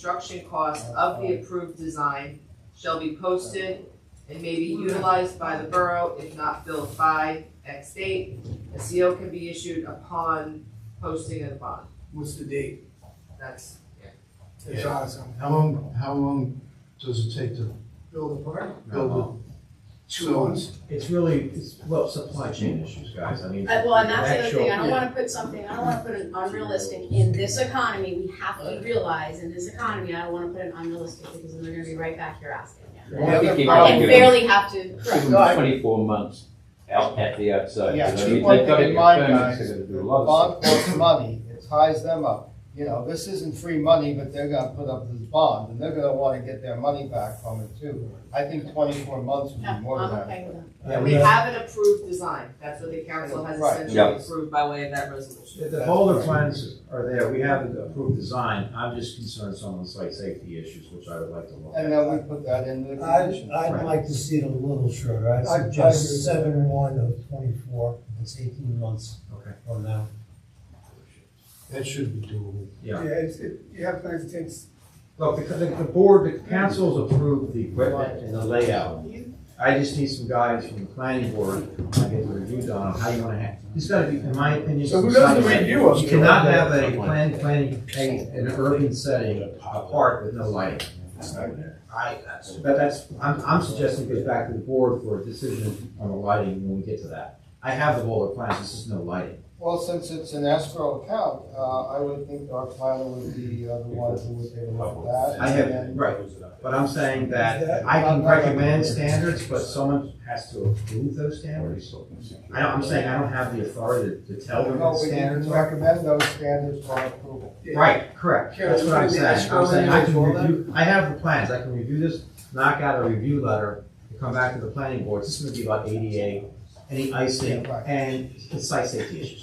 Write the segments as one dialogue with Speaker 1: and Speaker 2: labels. Speaker 1: construction cost of the approved design shall be posted and may be utilized by the borough if not filled by X date. A CO can be issued upon posting of the bond.
Speaker 2: What's the date?
Speaker 1: That's, yeah.
Speaker 2: It's awesome.
Speaker 3: How long, how long does it take to
Speaker 2: Build a park?
Speaker 3: build it?
Speaker 2: Two months.
Speaker 4: It's really, it's, well,
Speaker 5: Supply
Speaker 4: supply chain.
Speaker 5: chain issues, guys, I mean.
Speaker 6: Uh, Well, and that's the other thing, I don't
Speaker 4: Actual-
Speaker 6: wanna put something, I don't wanna put an unrealistic, in this economy, we have to realize, in this economy, I don't wanna put an unrealistic, because then they're gonna be right back here asking. again.
Speaker 5: I think you
Speaker 6: I
Speaker 5: gotta
Speaker 6: can
Speaker 5: give them-
Speaker 6: barely have to,
Speaker 5: give
Speaker 6: correct,
Speaker 5: them
Speaker 7: Go ahead.
Speaker 5: twenty-four months out at the outside.
Speaker 7: Yeah,
Speaker 5: You know,
Speaker 7: keep
Speaker 5: they've
Speaker 7: one
Speaker 5: gotta
Speaker 7: thing in
Speaker 5: get
Speaker 7: mind,
Speaker 5: permits,
Speaker 7: guys.
Speaker 5: they're gonna do
Speaker 7: The
Speaker 5: a lot of
Speaker 7: bond costs money, it ties them up. You know, this isn't free money, but they're gonna put up this bond, and they're gonna wanna get their money back from it too. I think twenty-four months would
Speaker 6: Yeah,
Speaker 7: be
Speaker 6: I'm
Speaker 7: more than
Speaker 6: okay
Speaker 7: that.
Speaker 6: with that.
Speaker 4: Yeah,
Speaker 1: We
Speaker 4: we,
Speaker 1: have an approved design, that's what the council has
Speaker 7: Right.
Speaker 1: essentially approved by way of that resolution.
Speaker 4: the
Speaker 7: That's
Speaker 4: boulder
Speaker 7: right.
Speaker 4: plans are there, we have the approved
Speaker 5: Design, I'm just concerned someone's like safety issues, which I would like to look
Speaker 7: And then we put that into the
Speaker 8: I'd,
Speaker 7: condition.
Speaker 8: I'd like to see it a little shorter, I'd
Speaker 7: I- I agree.
Speaker 8: suggest seven one of twenty-four, it's eighteen months
Speaker 5: Okay.
Speaker 8: from now.
Speaker 3: That should be doable.
Speaker 2: Yeah, it's, it, you have plans to take.
Speaker 4: Look, the, the the board, the council's approved the equipment and the layout. I just need some guidance from the planning board, I get the review done, on how you wanna have, it's gotta be, in my opinion.
Speaker 2: So who
Speaker 4: some
Speaker 2: does the
Speaker 4: site-
Speaker 2: review of
Speaker 4: You cannot have a plan, planning, a- an urban setting, a park with no lighting. I, that's- but that's, I'm, I'm suggesting it goes back to the board for a decision on the lighting when we get to that. I have the boulder plans, this is no lighting.
Speaker 7: Well, since it's an escrow account, uh, I would think our planner would be uh, the one who would take a look at that.
Speaker 4: I
Speaker 7: and then-
Speaker 4: have, right, But I'm saying that I can recommend standards, but someone has to approve those standards. I don't, I'm saying I don't have the authority to tell them
Speaker 7: No,
Speaker 4: what
Speaker 7: we need
Speaker 4: standards
Speaker 7: to
Speaker 4: are.
Speaker 7: recommend those standards for approval.
Speaker 4: Right, correct, that's what I'm saying, I'm saying I can
Speaker 2: Yeah, it's-
Speaker 4: review, I have the plans, I can review this, knock out a review letter, and come back to the planning board, this is gonna be about ADA, any icing,
Speaker 7: Yeah, right.
Speaker 4: and the site safety issues.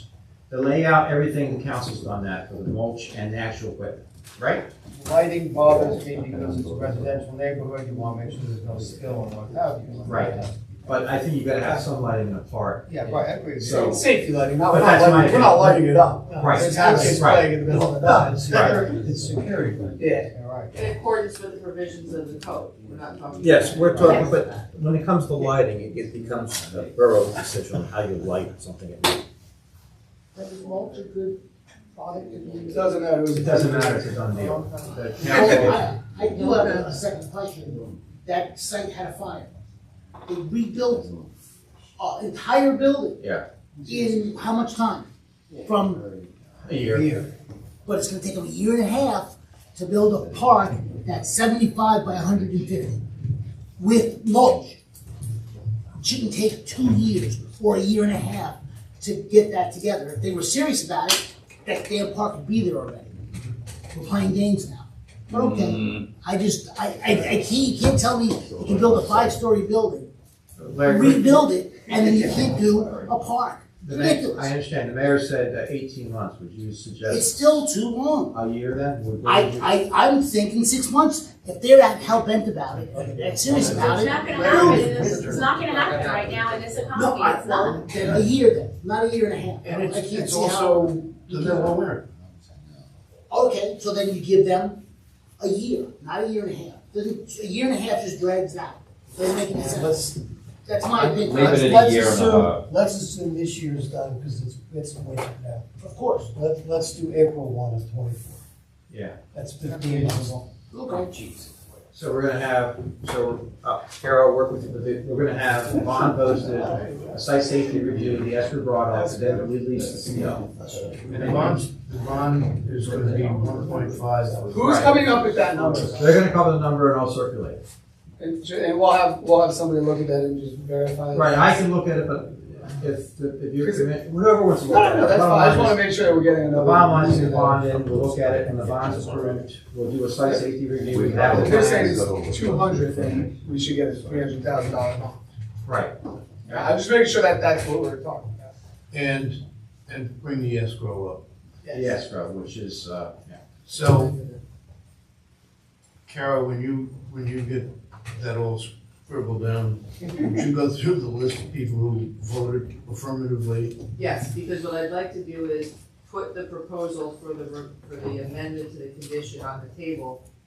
Speaker 4: The layout, everything, the council's done that for the mulch and the actual equipment, right?
Speaker 7: Lighting bothers me because it's a residential neighborhood, you wanna make sure there's no spill and what have you.
Speaker 4: Right. But I think you gotta have some lighting in the park.
Speaker 7: Yeah, right, I agree with
Speaker 4: So-
Speaker 7: you.
Speaker 8: Safety lighting,
Speaker 4: But that's my
Speaker 8: we're not lighting it up.
Speaker 4: Right,
Speaker 8: It's not
Speaker 4: that's
Speaker 8: just
Speaker 4: right.
Speaker 8: playing in the middle of the night, it's
Speaker 4: Right.
Speaker 8: security, it's security.
Speaker 2: Yeah.
Speaker 7: Yeah, right.
Speaker 1: In accordance with the provisions of the code, we're not talking.
Speaker 9: Yes, we're talking,
Speaker 6: Yes.
Speaker 9: but when it comes to lighting, it gets- becomes a borough's decision on how you light something.
Speaker 7: That is mulch a good product?
Speaker 2: It doesn't matter.
Speaker 4: It doesn't matter, it's a done deal. The council-
Speaker 10: I I do have a second question. That site had a fire. They rebuilt an entire building.
Speaker 4: Yeah.
Speaker 10: In how much time? From,
Speaker 4: A year.
Speaker 10: but it's gonna take them a year and a half to build a park that's seventy-five by hundred and fifty with mulch. It shouldn't take two years or a year and a half to get that together. If they were serious about it, that damn park would be there already. We're playing games now. But okay.
Speaker 5: Mm.
Speaker 10: I just, I, I, I can't, you can't tell me you can build a five-story building,
Speaker 4: Larry,
Speaker 10: rebuild it, and then you can't do a park.
Speaker 4: the mayor,
Speaker 10: Ridiculous.
Speaker 4: I understand, the mayor said uh, eighteen months, would you
Speaker 10: It's
Speaker 4: suggest
Speaker 10: still too long.
Speaker 4: a year then? Would- would you-
Speaker 10: I, I, I'm thinking six months, if they're that hell-bent about it, if they're serious about
Speaker 6: it's
Speaker 10: it.
Speaker 6: not gonna happen, in this- it's not gonna happen right now in this
Speaker 10: No,
Speaker 6: economy,
Speaker 10: I,
Speaker 6: it's not.
Speaker 10: well, then a year then, not a year and a half.
Speaker 3: And
Speaker 10: I
Speaker 3: it's,
Speaker 10: can't
Speaker 3: it's
Speaker 10: see how-
Speaker 3: also the middle of winter.
Speaker 10: Okay, so then you give them a year, not a year and a half. Doesn't, a year and a half just drags out. Doesn't make any sense.
Speaker 8: Let's,
Speaker 10: That's my opinion.
Speaker 5: Leave it at a
Speaker 8: let's
Speaker 5: year and a
Speaker 8: assume-
Speaker 5: half.
Speaker 8: Let's assume this year is done, because it's, it's a winter now.
Speaker 10: Of course.
Speaker 8: Let, let's do April one of twenty-four.
Speaker 4: Yeah.
Speaker 8: That's fifteen months.
Speaker 10: Okay.
Speaker 4: So we're gonna have, so, uh, Carol, work with, the- we're gonna have a bond posted, a site safety review, the escrow brought up, and then we release the CO.
Speaker 3: And the bond's, the bond is gonna be one point five.
Speaker 2: Who's coming up with that number?
Speaker 4: They're gonna cover the number and I'll circulate. it.
Speaker 2: And, and we'll have, we'll have somebody look at that and just verify. it.
Speaker 4: Right, I can look at it, but if, the- if you're, commi- whoever wants to look
Speaker 2: No,
Speaker 4: at it.
Speaker 2: no, no, that's
Speaker 4: bottom
Speaker 2: fine. I just
Speaker 4: line is-
Speaker 2: wanna make sure that we're getting
Speaker 4: The
Speaker 2: another.
Speaker 4: bond lines
Speaker 2: Yeah.
Speaker 4: is bonded, we'll look at it, when the bond's approved, we'll do a site safety review. We have
Speaker 2: If they're saying
Speaker 4: the
Speaker 2: it's two hundred, then we should get a three hundred thousand dollar bond.
Speaker 4: Right.
Speaker 2: I'm just making sure that that's what we're talking about.
Speaker 3: And, and bring the escrow up.
Speaker 4: The escrow, which is, uh, yeah.
Speaker 3: So, Kara, when you, when you get that all scribbled down, would you go through the list of people who voted affirmatively?
Speaker 1: Yes, because what I'd like to do is put the proposal for the, re- for the amendment to the condition on the table